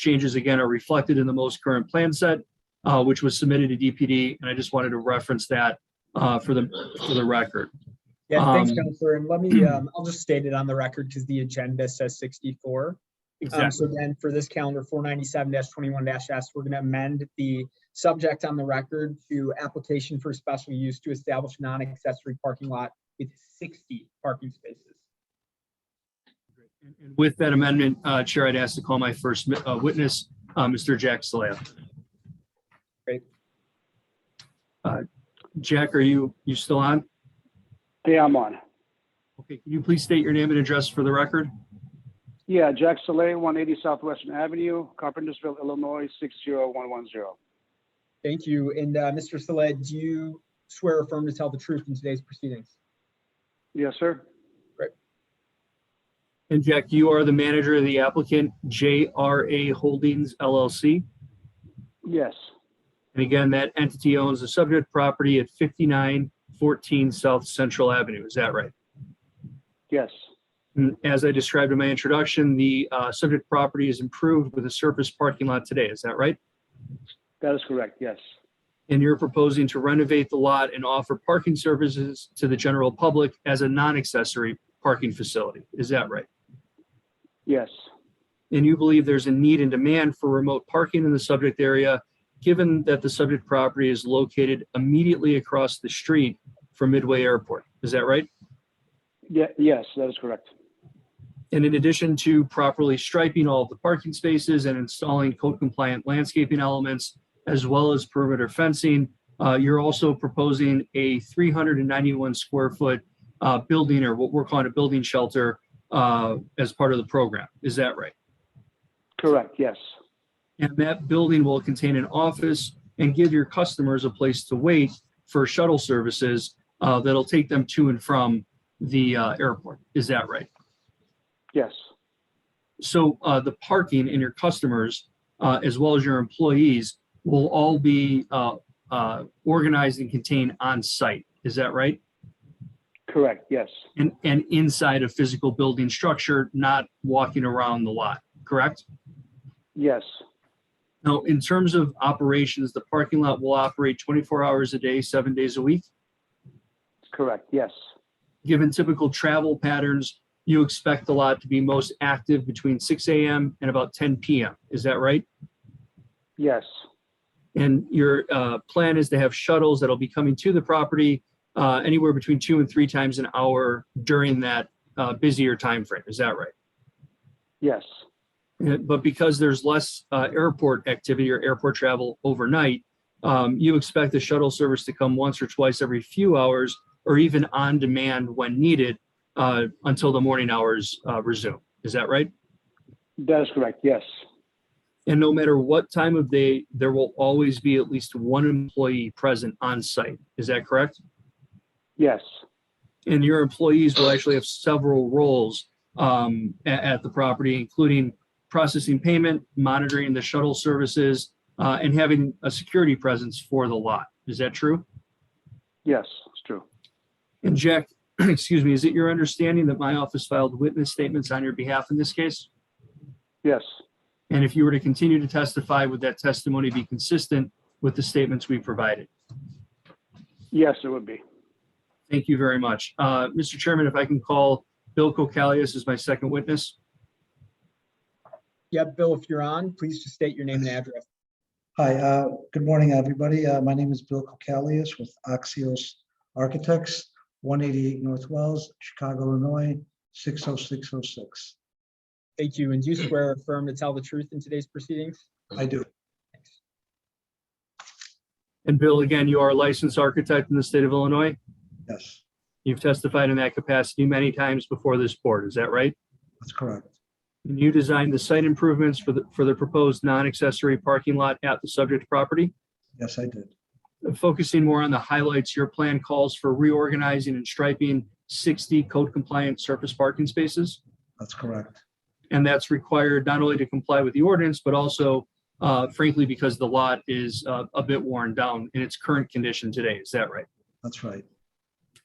changes again are reflected in the most current plan set, uh, which was submitted to DPD, and I just wanted to reference that, uh, for the, for the record. Yeah, thanks, Um, Counselor. And let me, um, I'll just state it on the record because the agenda says sixty-four. Um, so then for this calendar, four ninety-seven twenty-one dash S, we're gonna amend the subject on the record to application for special use to establish non-accessory parking lot with sixty parking spaces. And With that amendment, uh, Chair, I'd ask to call my first mi- uh, witness, uh, Mr. Jack Salea. Great. Uh, Jack, are you, you still on? Yeah, I'm on. Okay, can you please state your name and address for the record? Yeah, Jack Soleil, 180 Southwestern Avenue, Carpentersville, Illinois, 60110. Thank you. And, uh, Mr. Saleh, do you swear or affirm to tell the truth in today's proceedings? Yes, sir. And Jack, you are the manager of the applicant, JRA Holdings LLC. Yes. And again, that entity owns the subject property at 5914 South Central Avenue. Is that right? Yes. And As I described in my introduction, the uh, subject property is improved with a surface parking lot today, is that right? That is correct. Yes. And you're proposing to renovate the lot and offer parking services to the general public as a non-accessory parking facility, is that right? Yes. And you believe there's a need and demand for remote parking in the subject area, given that the subject property is located immediately across the street from Midway Airport, is that right? Yeah, yes, that is correct. And in addition to properly striping all of the parking spaces and installing code compliant landscaping elements, as well as perimeter fencing, uh, you're also proposing a 391 square foot uh, building or what we're calling a building shelter uh, as part of the program. Is that right? Correct. Yes. And that building will contain an office and give your customers a place to wait for shuttle services uh, that'll take them to and from the uh, airport. Is that right? Yes. So uh, the parking and your customers, uh, as well as your employees, will all be uh, uh, organized and contained on site. Is that right? Correct. Yes. And and inside a physical building structure, not walking around the lot. Correct. Yes. Now, in terms of operations, the parking lot will operate 24 hours a day, seven days a week. Correct. Yes. Given typical travel patterns, you expect the lot to be most active between 6 a.m. and about 10 p.m. Is that right? Yes. And your uh, plan is to have shuttles that'll be coming to the property uh, anywhere between two and three times an hour during that uh, busier timeframe. Is that right? Yes. Uh, But because there's less uh, airport activity or airport travel overnight, um, you expect the shuttle service to come once or twice every few hours or even on demand when needed uh, until the morning hours uh, resume. Is that right? That is correct. Yes. And no matter what time of day, there will always be at least one employee present on site. Is that correct? Yes. and your employees will actually have several roles um, a- at, the property, including processing payment, monitoring the shuttle services, uh, and having a security presence for the lot. Is that true? Yes. It's true. And Jack, excuse me, is it your understanding that my office filed witness statements on your behalf in this case? Yes. And if you were to continue to testify, would that testimony be consistent with the statements we provided? Yes, it would be. Thank you very much. Uh, Mr. Chairman, if I can call Bill Kokalias as my second witness. Yeah, Bill, if you're on, please just state your name and address. Hi, uh, good morning, everybody. Uh, My name is Bill Kokalias with Axios Architects, 188 North Wells, Chicago, Illinois, 60606. Thank you. And do you swear or affirm to tell the truth in today's proceedings? I do. And Bill, again, you are a licensed architect in the state of Illinois. Yes, You've testified in that capacity many times before this board, is that right? that's correct. And you designed the site improvements for the, for the proposed non-accessory parking lot at the subject property? Uh, Yes, I did. Focusing more on the highlights, your plan calls for reorganizing and striping 60 code compliant surface parking spaces. That's correct. And that's required not only to comply with the ordinance, but also uh, frankly, because the lot is uh, a bit worn down in its current condition today, is that right? That's right.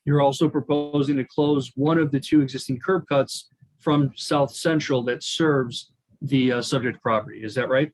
You're also proposing to close one of the two existing curb cuts from South Central that serves the uh, subject property. Is that right?